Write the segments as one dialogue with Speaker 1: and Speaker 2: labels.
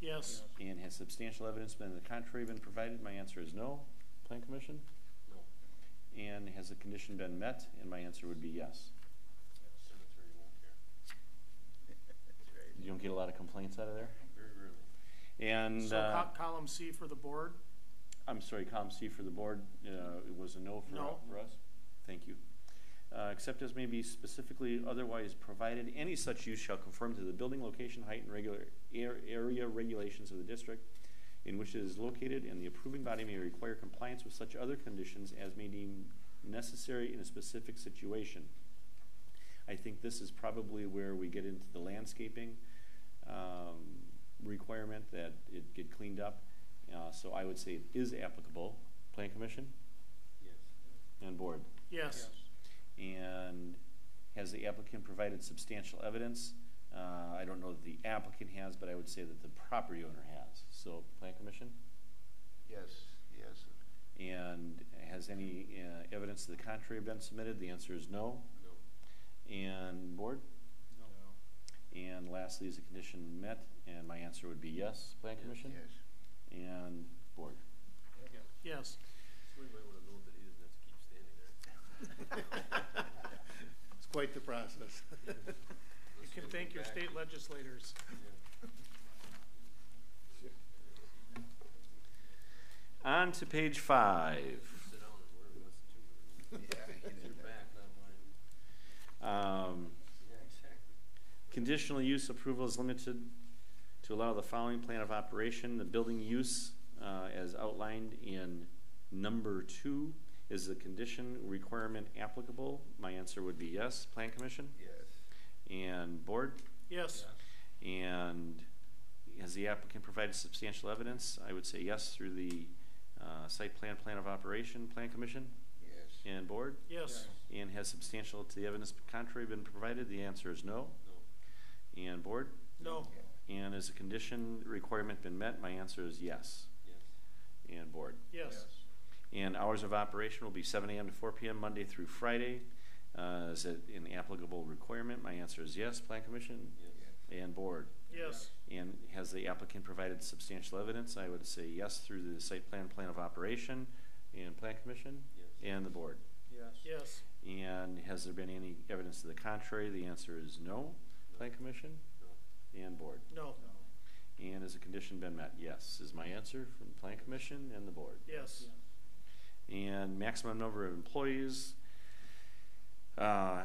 Speaker 1: Yes.
Speaker 2: And has substantial evidence been to the contrary been provided? My answer is no. Plan Commission?
Speaker 3: No.
Speaker 2: And has the condition been met? And my answer would be yes.
Speaker 3: Cemetery won't care.
Speaker 2: You don't get a lot of complaints out of there?
Speaker 3: Very rarely.
Speaker 2: And,
Speaker 1: So
Speaker 2: uh,
Speaker 1: col- column C for the board,
Speaker 2: I'm sorry, column C for the board, uh, it was a no for,
Speaker 1: No.
Speaker 2: for us? Thank you. Uh, except as may be specifically otherwise provided, any such use shall conform to the building location, height, and regular air, area regulations of the district in which it is located, and the approving body may require compliance with such other conditions as may deem necessary in a specific situation. I think this is probably where we get into the landscaping, um, requirement that it get cleaned up. Uh, so I would say it is applicable, plan commission
Speaker 3: Yes.
Speaker 2: and board.
Speaker 1: yes.
Speaker 2: And has the applicant provided substantial evidence? Uh, I don't know that the applicant has, but I would say that the property owner has. So, plan commission?
Speaker 4: Yes, yes.
Speaker 2: And has any, uh, evidence to the contrary been submitted? The answer is no.
Speaker 3: No.
Speaker 2: And board?
Speaker 3: No.
Speaker 2: And lastly, is the condition met? And my answer would be yes, plan commission?
Speaker 4: Yes.
Speaker 2: And board?
Speaker 3: Yeah.
Speaker 1: Yes.
Speaker 3: Somebody might wanna know that he doesn't have to keep standing there.
Speaker 4: It's quite the process.
Speaker 1: You can thank your state legislators.
Speaker 2: On to page five.
Speaker 3: Sit down and whatever he wants to do.
Speaker 4: Yeah, he
Speaker 3: It's your
Speaker 4: did that.
Speaker 3: back, not mine.
Speaker 2: Um,
Speaker 3: Yeah, exactly.
Speaker 2: Conditional use approval is limited to allow the following plan of operation. The building use, uh, as outlined in number two, is the condition requirement applicable? My answer would be yes. Plan Commission
Speaker 4: Yes.
Speaker 2: and Board?
Speaker 1: Yes,
Speaker 2: And has the applicant provided substantial evidence? I would say yes through the uh, site plan, plan of operation, Plan Commission
Speaker 4: Yes.
Speaker 2: and Board?
Speaker 1: yes,
Speaker 2: And has substantial to the evidence contrary been provided? The answer is no.
Speaker 3: No.
Speaker 2: And Board?
Speaker 1: no,
Speaker 2: And has the condition requirement been met? My answer is yes.
Speaker 3: Yes.
Speaker 2: And board.
Speaker 1: yes,
Speaker 2: And hours of operation will be seven AM to four PM, Monday through Friday. Uh, is it an applicable requirement? My answer is yes, plan commission
Speaker 3: Yes.
Speaker 2: and board.
Speaker 1: yes,
Speaker 2: And has the applicant provided substantial evidence? I would say yes through the site plan, plan of operation and plan commission
Speaker 3: Yes.
Speaker 2: and the board.
Speaker 4: Yes.
Speaker 1: yes,
Speaker 2: And has there been any evidence to the contrary? The answer is no, plan commission
Speaker 3: No.
Speaker 2: and board.
Speaker 1: no,
Speaker 2: And has the condition been met? Yes, is my answer from Plan Commission and the board.
Speaker 1: yes,
Speaker 2: And maximum number of employees uh,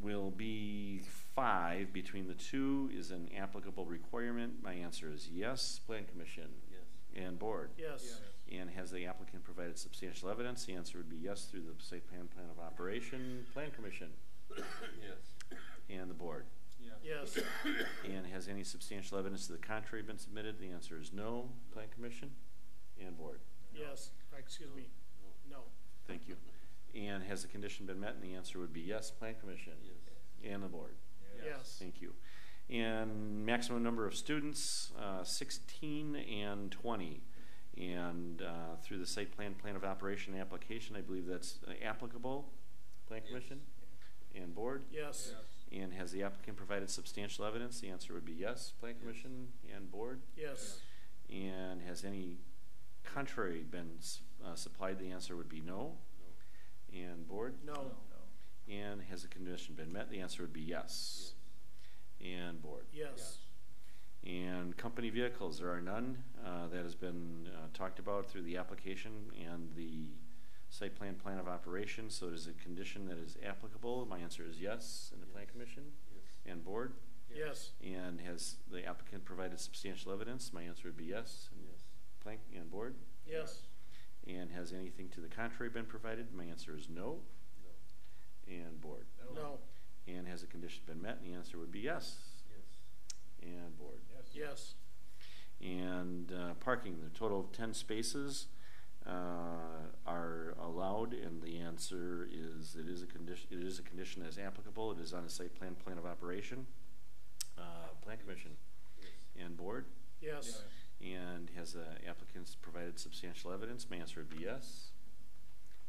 Speaker 2: will be five between the two is an applicable requirement. My answer is yes, Plan Commission
Speaker 3: Yes.
Speaker 2: and board.
Speaker 1: yes,
Speaker 2: And has the applicant provided substantial evidence? The answer would be yes through the site plan, plan of operation, Plan Commission
Speaker 3: Yes.
Speaker 2: and the board.
Speaker 1: yes,
Speaker 2: And has any substantial evidence to the contrary been submitted? The answer is no, Plan Commission and board.
Speaker 1: yes, excuse me,
Speaker 3: No.
Speaker 1: no,
Speaker 2: Thank you. And has the condition been met? And the answer would be yes, Plan Commission
Speaker 3: Yes.
Speaker 2: and the board.
Speaker 1: yes,
Speaker 2: Thank you. And maximum number of students, uh, sixteen and twenty. And uh, through the site plan, plan of operation application, I believe that's uh, applicable, Plan
Speaker 3: Yes.
Speaker 2: Commission and board.
Speaker 1: yes,
Speaker 2: And has the applicant provided substantial evidence? The answer would be yes, Plan
Speaker 3: Yes.
Speaker 2: Commission and board.
Speaker 1: yes,
Speaker 2: And has any contrary been s- uh, supplied? The answer would be no,
Speaker 3: No.
Speaker 2: and board.
Speaker 1: no,
Speaker 2: And has the condition been met? The answer would be yes.
Speaker 3: Yes.
Speaker 2: And board.
Speaker 1: yes,
Speaker 2: And company vehicles, there are none. Uh, that has been uh, talked about through the application and the site plan, plan of operation. So it is a condition that is applicable. My answer is yes. And the plan
Speaker 3: Yes.
Speaker 2: commission
Speaker 3: Yes.
Speaker 2: and board.
Speaker 1: yes,
Speaker 2: And has the applicant provided substantial evidence? My answer would be yes. And
Speaker 3: Yes.
Speaker 2: plan and board.
Speaker 1: yes,
Speaker 2: And has anything to the contrary been provided? My answer is no.
Speaker 3: No.
Speaker 2: And board.
Speaker 1: no,
Speaker 2: And has the condition been met? And the answer would be yes.
Speaker 3: Yes.
Speaker 2: And board.
Speaker 1: yes,
Speaker 2: And uh, parking, the total of ten spaces uh, are allowed, and the answer is it is a condition. It is a condition as applicable. It is on a site plan, plan of operation, uh, plan commission, and board.
Speaker 1: yes,
Speaker 2: And has the applicants provided substantial evidence? My answer would be yes.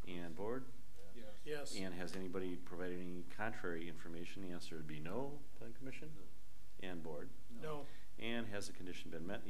Speaker 2: And board.
Speaker 1: yes,
Speaker 2: And has anybody provided any contrary information? The answer would be no. Plan commission.
Speaker 3: No.
Speaker 2: And board.
Speaker 1: no.
Speaker 2: And has the condition been met? The